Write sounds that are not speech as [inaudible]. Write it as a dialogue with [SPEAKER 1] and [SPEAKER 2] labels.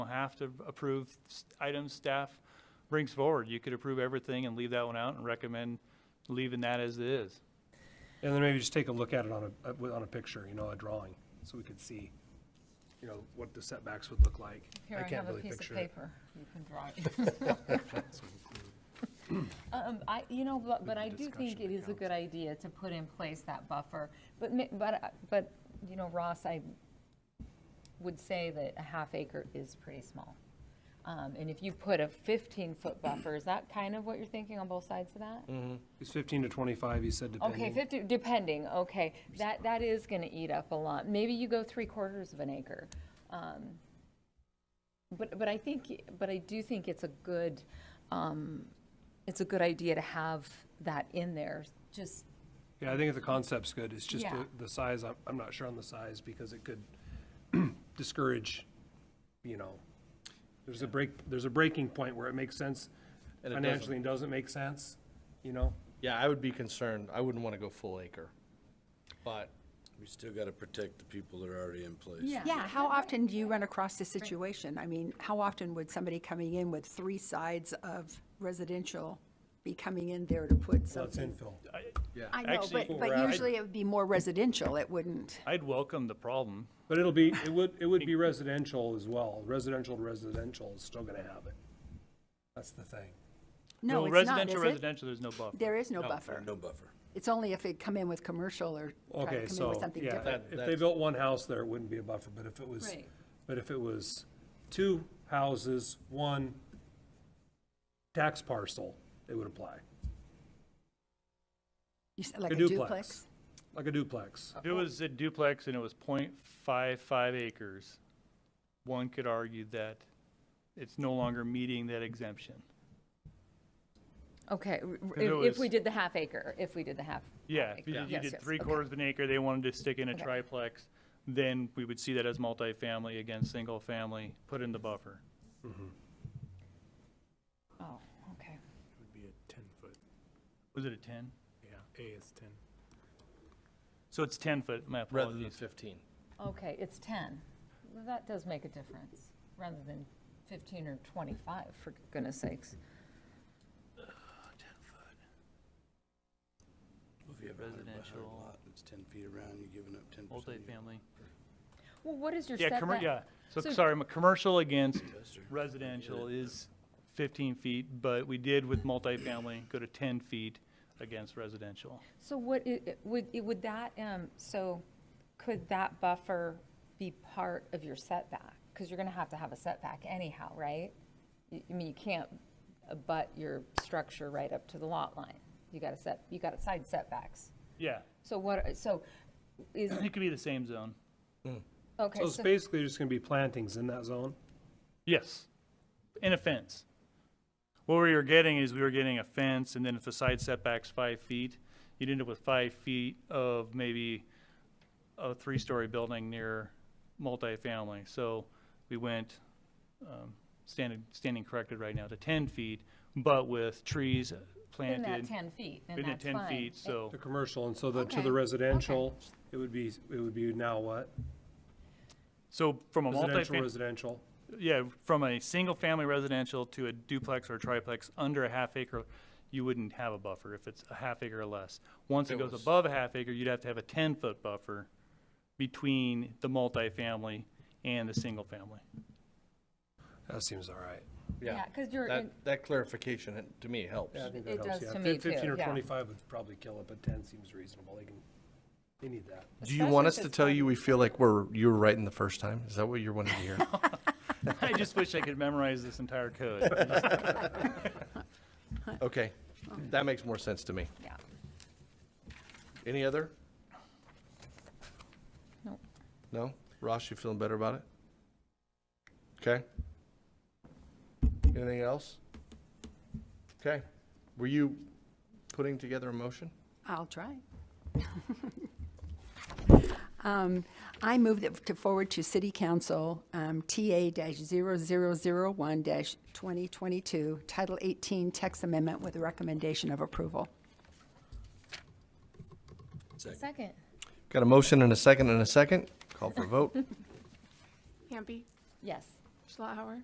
[SPEAKER 1] have to approve s- items staff brings forward. You could approve everything and leave that one out and recommend leaving that as it is.
[SPEAKER 2] And then maybe just take a look at it on a, uh, with- on a picture, you know, a drawing, so we could see, you know, what the setbacks would look like.
[SPEAKER 3] Here, I
[SPEAKER 2] can't
[SPEAKER 3] have a
[SPEAKER 2] really
[SPEAKER 3] piece
[SPEAKER 2] picture
[SPEAKER 3] of
[SPEAKER 2] it.
[SPEAKER 3] paper. You can draw
[SPEAKER 2] [laughs]
[SPEAKER 3] it. Um, I, you know, but, but I do think it is a good idea to put in place that buffer. But, ma- but, I- but, you know, Ross, I would say that a half acre is pretty small. Um, and if you put a fifteen-foot buffer, is that kind of what you're thinking on both sides of
[SPEAKER 2] Mm,
[SPEAKER 3] that?
[SPEAKER 2] It's fifteen to twenty-five, you said, depending.
[SPEAKER 3] Okay, fifty, depending, okay, that, that is gonna eat up a lot, maybe you go three quarters of an acre. Um, But, but I think, but I do think it's a good, um, it's a good idea to have that in there, just,
[SPEAKER 2] Yeah, I think the concept's good, it's just
[SPEAKER 3] Yeah.
[SPEAKER 2] the, the size, I'm, I'm not sure on the size, because it could [clears throat] discourage, you know, there's a break, there's a breaking point where it makes sense
[SPEAKER 4] And it doesn't.
[SPEAKER 2] financially and doesn't make sense, you know?
[SPEAKER 4] Yeah, I would be concerned. I wouldn't want to go full acre. But
[SPEAKER 5] We still got to protect the people that are already in place.
[SPEAKER 3] yeah.
[SPEAKER 6] Yeah, how often do you run across this situation? I mean, how often would somebody coming in with three sides of residential be coming in there to put
[SPEAKER 2] That's
[SPEAKER 6] something?
[SPEAKER 2] infill.
[SPEAKER 6] I know,
[SPEAKER 1] Actually,
[SPEAKER 6] but, but usually it would be more residential, it wouldn't.
[SPEAKER 1] I'd welcome the problem.
[SPEAKER 2] But it'll be, it would, it would be residential as well, residential to residential is still gonna have it. That's the thing.
[SPEAKER 6] No,
[SPEAKER 1] Well,
[SPEAKER 6] it's not,
[SPEAKER 1] Residential,
[SPEAKER 6] is it?
[SPEAKER 1] residential, there's no buffer.
[SPEAKER 6] There is no buffer.
[SPEAKER 5] No buffer.
[SPEAKER 6] It's only if they come in with commercial or try
[SPEAKER 2] Okay,
[SPEAKER 6] to come in with
[SPEAKER 2] so,
[SPEAKER 6] something
[SPEAKER 2] yeah,
[SPEAKER 6] different.
[SPEAKER 2] if they built one house there, it wouldn't be a buffer, but if it was,
[SPEAKER 3] Right.
[SPEAKER 2] but if it was two houses, one tax parcel, it would apply,
[SPEAKER 6] You said Like
[SPEAKER 2] A
[SPEAKER 6] a
[SPEAKER 2] duplex.
[SPEAKER 6] duplex?
[SPEAKER 2] like a duplex.
[SPEAKER 1] If it was a duplex and it was .55 acres, one could argue that it's no longer meeting that exemption.
[SPEAKER 3] Okay, r- r-
[SPEAKER 1] it
[SPEAKER 3] if, if we
[SPEAKER 1] was-
[SPEAKER 3] did the half acre, if we did the half.
[SPEAKER 1] Yeah,
[SPEAKER 3] half
[SPEAKER 1] if you
[SPEAKER 3] acre.
[SPEAKER 1] did- you
[SPEAKER 3] Yes,
[SPEAKER 1] did
[SPEAKER 3] yes,
[SPEAKER 1] three
[SPEAKER 3] okay.
[SPEAKER 1] quarters of an acre, they wanted to stick in a
[SPEAKER 6] Okay.
[SPEAKER 1] triplex, then we would see that as multifamily against single family, put in the buffer.
[SPEAKER 3] Oh, okay.
[SPEAKER 7] would be a ten foot,
[SPEAKER 1] Was it a ten?
[SPEAKER 7] yeah, A is ten.
[SPEAKER 1] So it's ten foot, my
[SPEAKER 4] rather than
[SPEAKER 1] apologies.
[SPEAKER 4] 15.
[SPEAKER 3] Okay, it's 10. Well, That does make a difference, rather than 15 or 25, for goodness sakes.
[SPEAKER 5] If you have a hundred by a hundred
[SPEAKER 1] Residential.
[SPEAKER 5] lot, It's ten feet around, you're giving up ten percent.
[SPEAKER 1] Multifamily.
[SPEAKER 3] Well, what is your
[SPEAKER 1] Yeah,
[SPEAKER 3] setback?
[SPEAKER 1] commer, yeah, so,
[SPEAKER 3] So-
[SPEAKER 1] sorry, my commercial against residential is fifteen feet, but we did with multifamily, go to ten feet against residential.
[SPEAKER 3] So what, i- i- would, i- would that, um, so could that buffer be part of your setback? Because you're going to have to have a setback anyhow, right? You- I mean, you can't abut your structure right up to the lot line. You got to set, you got side setbacks.
[SPEAKER 1] Yeah,
[SPEAKER 3] So what, so is,
[SPEAKER 1] it could be the same zone.
[SPEAKER 3] okay,
[SPEAKER 2] So it's
[SPEAKER 3] so,
[SPEAKER 2] basically just gonna be plantings in that zone?
[SPEAKER 1] Yes, in a fence. What we were getting is we were getting a fence, and then if the side setback's five feet, you'd end up with five feet of maybe a three-story building near multifamily. So we went, um, standing, standing corrected right now to ten feet, but with trees
[SPEAKER 3] in
[SPEAKER 1] planted.
[SPEAKER 3] that 10 feet, then
[SPEAKER 1] within
[SPEAKER 3] that's fine.
[SPEAKER 1] ten feet, so
[SPEAKER 2] The commercial, and so the, to
[SPEAKER 3] Okay, okay.
[SPEAKER 2] the residential, it would be, it would be now what?
[SPEAKER 1] so from a
[SPEAKER 2] Residential,
[SPEAKER 1] multifamily.
[SPEAKER 2] residential,
[SPEAKER 1] yeah, from a single-family residential to a duplex or triplex under a half acre, you wouldn't have a buffer if it's a half acre or less. Once it
[SPEAKER 4] It
[SPEAKER 1] goes
[SPEAKER 4] was-
[SPEAKER 1] above a half acre, you'd have to have a ten-foot buffer between the multifamily and the single-family.
[SPEAKER 2] that seems all right.
[SPEAKER 3] Yeah, 'cause you're
[SPEAKER 4] That,
[SPEAKER 3] in-
[SPEAKER 4] that clarification it- to me helps.
[SPEAKER 2] Yeah, I think
[SPEAKER 3] It
[SPEAKER 2] that helps,
[SPEAKER 3] does
[SPEAKER 2] yeah.
[SPEAKER 3] to
[SPEAKER 2] Fif-
[SPEAKER 3] me too,
[SPEAKER 2] Fifteen or
[SPEAKER 3] yeah.
[SPEAKER 2] twenty-five would probably kill it, but ten seems reasonable, they can, they need that.
[SPEAKER 4] Do you want us
[SPEAKER 3] Especially
[SPEAKER 4] to
[SPEAKER 3] if
[SPEAKER 4] tell you we feel like we're, you were right in the first time? Is that what you're wanting to
[SPEAKER 3] [laughs]
[SPEAKER 4] hear?
[SPEAKER 1] [laughs] I just wish I could memorize this entire code.
[SPEAKER 4] Okay, that makes more sense to me.
[SPEAKER 3] Yeah.
[SPEAKER 4] Any other?
[SPEAKER 3] Nope.
[SPEAKER 4] No? Ross, you feeling better about it? Okay. Anything else? Okay. Were you putting together a motion?
[SPEAKER 6] I'll try. [laughs] Um, I move that to forward to City Council um, TA-0001-2022, Title 18 text amendment with a recommendation of approval.
[SPEAKER 3] Second.
[SPEAKER 4] Got a motion and a second and a second. Call for a vote.
[SPEAKER 8] Hampi,
[SPEAKER 3] Yes.
[SPEAKER 8] Schlauer,